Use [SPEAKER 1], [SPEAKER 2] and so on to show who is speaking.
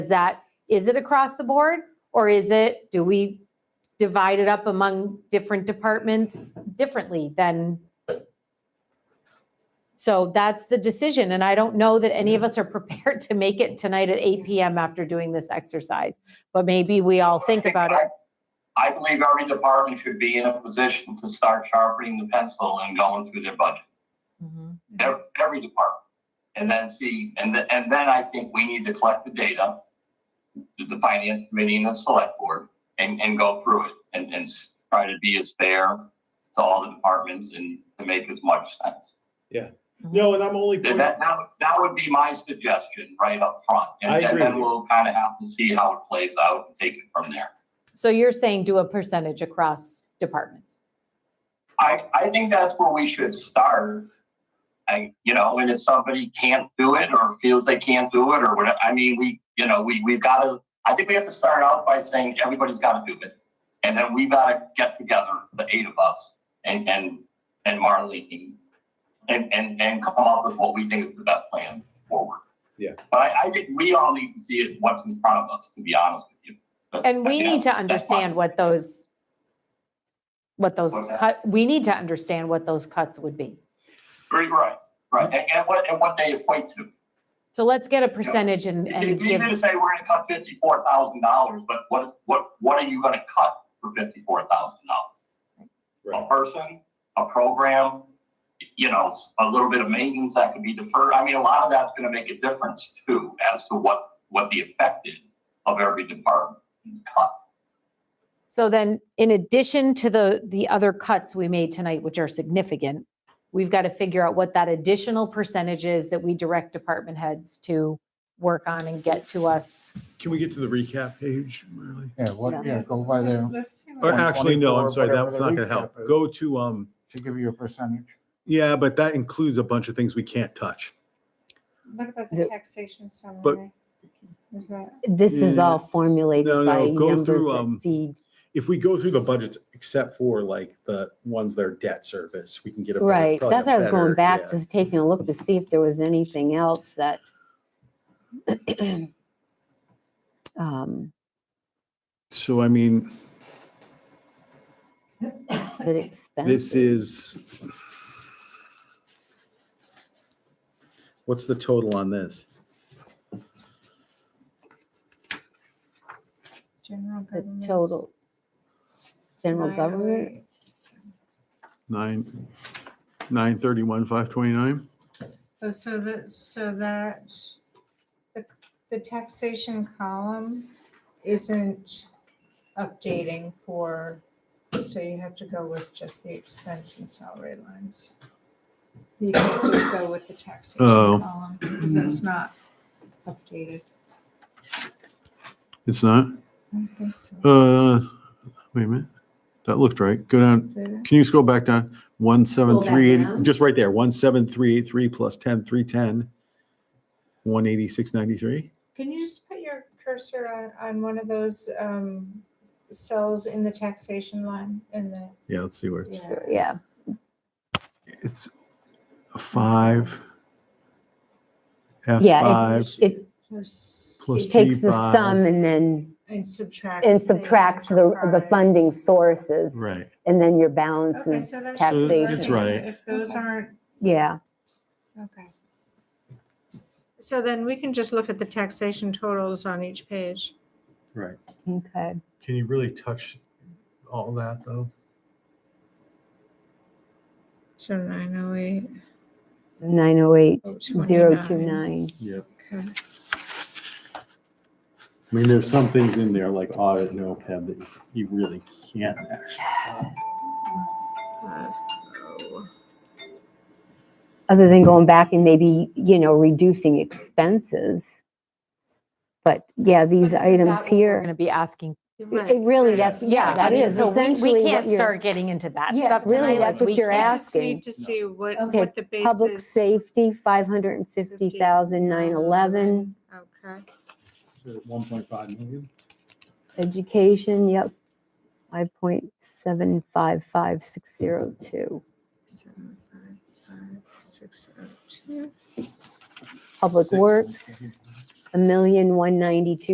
[SPEAKER 1] is that, is it across the board? Or is it, do we divide it up among different departments differently than? So that's the decision, and I don't know that any of us are prepared to make it tonight at 8 PM after doing this exercise. But maybe we all think about it.
[SPEAKER 2] I believe every department should be in a position to start sharpening the pencil and going through their budget,
[SPEAKER 1] Mm-hmm.
[SPEAKER 2] ev- every department. And then see, and then, and then I think we need to collect the data, the- the finance committee and the select board, and, and go through it and, and s- try to be as fair to all the departments and to make as much sense.
[SPEAKER 3] No, and I'm only,
[SPEAKER 2] That,
[SPEAKER 3] point-
[SPEAKER 2] that, that would- that would be my suggestion right up front. And-
[SPEAKER 3] I agree
[SPEAKER 2] And
[SPEAKER 3] with
[SPEAKER 2] then
[SPEAKER 3] you.
[SPEAKER 2] we'll kind of have to see how it plays out and take it from there.
[SPEAKER 1] So you're saying do a percentage across departments?
[SPEAKER 2] I, I think that's where we should start. I, you know, and if somebody can't do it or feels they can't do it or whatever, I mean, we, you know, we, we've got to, I think we have to start out by saying everybody's got to do it. And then we got to get together, the eight of us and, and, and Marlene and, and, and come up with what we think is the best plan forward.
[SPEAKER 3] Yeah.
[SPEAKER 2] But I, I think we all need to see it what's in front of us, to be honest with you. But-
[SPEAKER 1] And we
[SPEAKER 2] yeah,
[SPEAKER 1] need to
[SPEAKER 2] that's my-
[SPEAKER 1] understand what those, what those
[SPEAKER 2] What's that?
[SPEAKER 1] cut, we need to understand what those cuts would be.
[SPEAKER 2] Right, right, right. And, and what, and what they equate to.
[SPEAKER 1] So let's get a percentage and, and
[SPEAKER 2] It's easy
[SPEAKER 1] give,
[SPEAKER 2] to say we're gonna cut fifty-four thousand dollars, but what, what, what are you gonna cut for fifty-four thousand dollars? A
[SPEAKER 3] right,
[SPEAKER 2] person, a program, you know, s- a little bit of maintenance that could be deferred. I mean, a lot of that's gonna make a difference too, as to what, what the effect is of every department's cut.
[SPEAKER 1] so then in addition to the, the other cuts we made tonight, which are significant, we've got to figure out what that additional percentage is that we direct department heads to work on and get to us.
[SPEAKER 3] can we get to the recap page, Marley?
[SPEAKER 4] Yeah, what,
[SPEAKER 1] Yeah.
[SPEAKER 4] yeah, go by there
[SPEAKER 5] Let's see
[SPEAKER 3] Or
[SPEAKER 5] what-
[SPEAKER 4] Uh,
[SPEAKER 3] actually, no, I'm
[SPEAKER 4] 124,
[SPEAKER 3] sorry,
[SPEAKER 4] whatever
[SPEAKER 3] that's
[SPEAKER 4] the
[SPEAKER 3] not gonna help.
[SPEAKER 4] recap is.
[SPEAKER 3] Go to, um,
[SPEAKER 4] to give you a percentage.
[SPEAKER 3] yeah, but that includes a bunch of things we can't touch.
[SPEAKER 5] What about the taxation summary? Is that-
[SPEAKER 6] This is
[SPEAKER 3] Yeah.
[SPEAKER 6] all formulated
[SPEAKER 3] No, no,
[SPEAKER 6] by
[SPEAKER 3] go
[SPEAKER 6] numbers
[SPEAKER 3] through, um,
[SPEAKER 6] that feed.
[SPEAKER 3] If we go through the budgets, except for like the ones that are debt service, we can get a. better-
[SPEAKER 6] Right,
[SPEAKER 3] probably
[SPEAKER 6] that's
[SPEAKER 3] a
[SPEAKER 6] why I was
[SPEAKER 3] better-
[SPEAKER 6] going back,
[SPEAKER 3] yeah.
[SPEAKER 6] just taking a look to see if there was anything else that um,
[SPEAKER 3] So I mean,
[SPEAKER 6] that
[SPEAKER 3] this
[SPEAKER 6] expensive.
[SPEAKER 3] is. What's the total on this?
[SPEAKER 5] General
[SPEAKER 6] The
[SPEAKER 5] government.
[SPEAKER 6] total.
[SPEAKER 5] oh
[SPEAKER 6] General government,
[SPEAKER 3] Nine, nine thirty-one, five twenty-nine?
[SPEAKER 5] Oh, so that, so that, the, the taxation column isn't updating for, so you have to go with just the expense and salary lines. You can just go with the taxation
[SPEAKER 3] Oh.
[SPEAKER 5] column, because that's not updated.
[SPEAKER 3] It's not?
[SPEAKER 5] I don't think so.
[SPEAKER 3] Uh, wait a minute. That looked right. Go down.
[SPEAKER 5] Did it?
[SPEAKER 3] Can you scroll back down? One, seven,
[SPEAKER 6] Scroll back
[SPEAKER 3] three, eight,
[SPEAKER 6] down.
[SPEAKER 3] just right there, one, seven, three, eight, three plus ten, three, ten. One eighty-six, ninety-three?
[SPEAKER 5] Can you just put your cursor on, on one of those um, cells in the taxation line in the?
[SPEAKER 3] Yeah, let's see where it's,
[SPEAKER 6] yeah,
[SPEAKER 3] it's a five. F
[SPEAKER 6] Yeah, it-
[SPEAKER 3] five,
[SPEAKER 6] it
[SPEAKER 5] Plus-
[SPEAKER 3] Plus
[SPEAKER 6] it takes the sum
[SPEAKER 3] 55.
[SPEAKER 6] and then,
[SPEAKER 5] And subtracts.
[SPEAKER 6] and subtracts the, the funding
[SPEAKER 5] enterprise.
[SPEAKER 6] sources,
[SPEAKER 3] right.
[SPEAKER 6] and then your balance
[SPEAKER 5] Okay,
[SPEAKER 6] is
[SPEAKER 5] so that's
[SPEAKER 3] So
[SPEAKER 6] taxation.
[SPEAKER 3] It's right.
[SPEAKER 5] If those aren't,
[SPEAKER 6] Yeah,
[SPEAKER 5] okay. So then we can just look at the taxation totals on each page.
[SPEAKER 3] Right.
[SPEAKER 6] okay.
[SPEAKER 3] Can you really touch all that though?
[SPEAKER 5] So nine oh eight,
[SPEAKER 6] 908,
[SPEAKER 5] oh,
[SPEAKER 6] 029.
[SPEAKER 3] Yeah.
[SPEAKER 5] Okay.
[SPEAKER 3] I mean, there's some things in there like audit and OPEB that you really can't.
[SPEAKER 5] Five, oh.
[SPEAKER 6] other than going back and maybe, you know, reducing expenses. But yeah, these items
[SPEAKER 1] We're going
[SPEAKER 6] here,
[SPEAKER 1] to be asking.
[SPEAKER 6] it really, that's, yeah, that
[SPEAKER 1] just-
[SPEAKER 6] is
[SPEAKER 1] so we-
[SPEAKER 6] essentially
[SPEAKER 1] We
[SPEAKER 6] what
[SPEAKER 1] can't
[SPEAKER 6] your
[SPEAKER 1] start getting into that
[SPEAKER 6] Yeah,
[SPEAKER 1] stuff
[SPEAKER 6] really,
[SPEAKER 1] tonight.
[SPEAKER 6] that's
[SPEAKER 1] like,
[SPEAKER 6] what
[SPEAKER 1] we
[SPEAKER 6] you're
[SPEAKER 5] I
[SPEAKER 1] can't-
[SPEAKER 5] just need to see what,
[SPEAKER 6] Okay,
[SPEAKER 5] what the
[SPEAKER 6] public
[SPEAKER 5] basis.
[SPEAKER 6] safety, 550,911,
[SPEAKER 5] Okay.
[SPEAKER 3] One point five million?
[SPEAKER 6] education, yep, 5.755602,
[SPEAKER 5] Seven, five, five, six, oh, two.
[SPEAKER 6] public works, 1,192,000.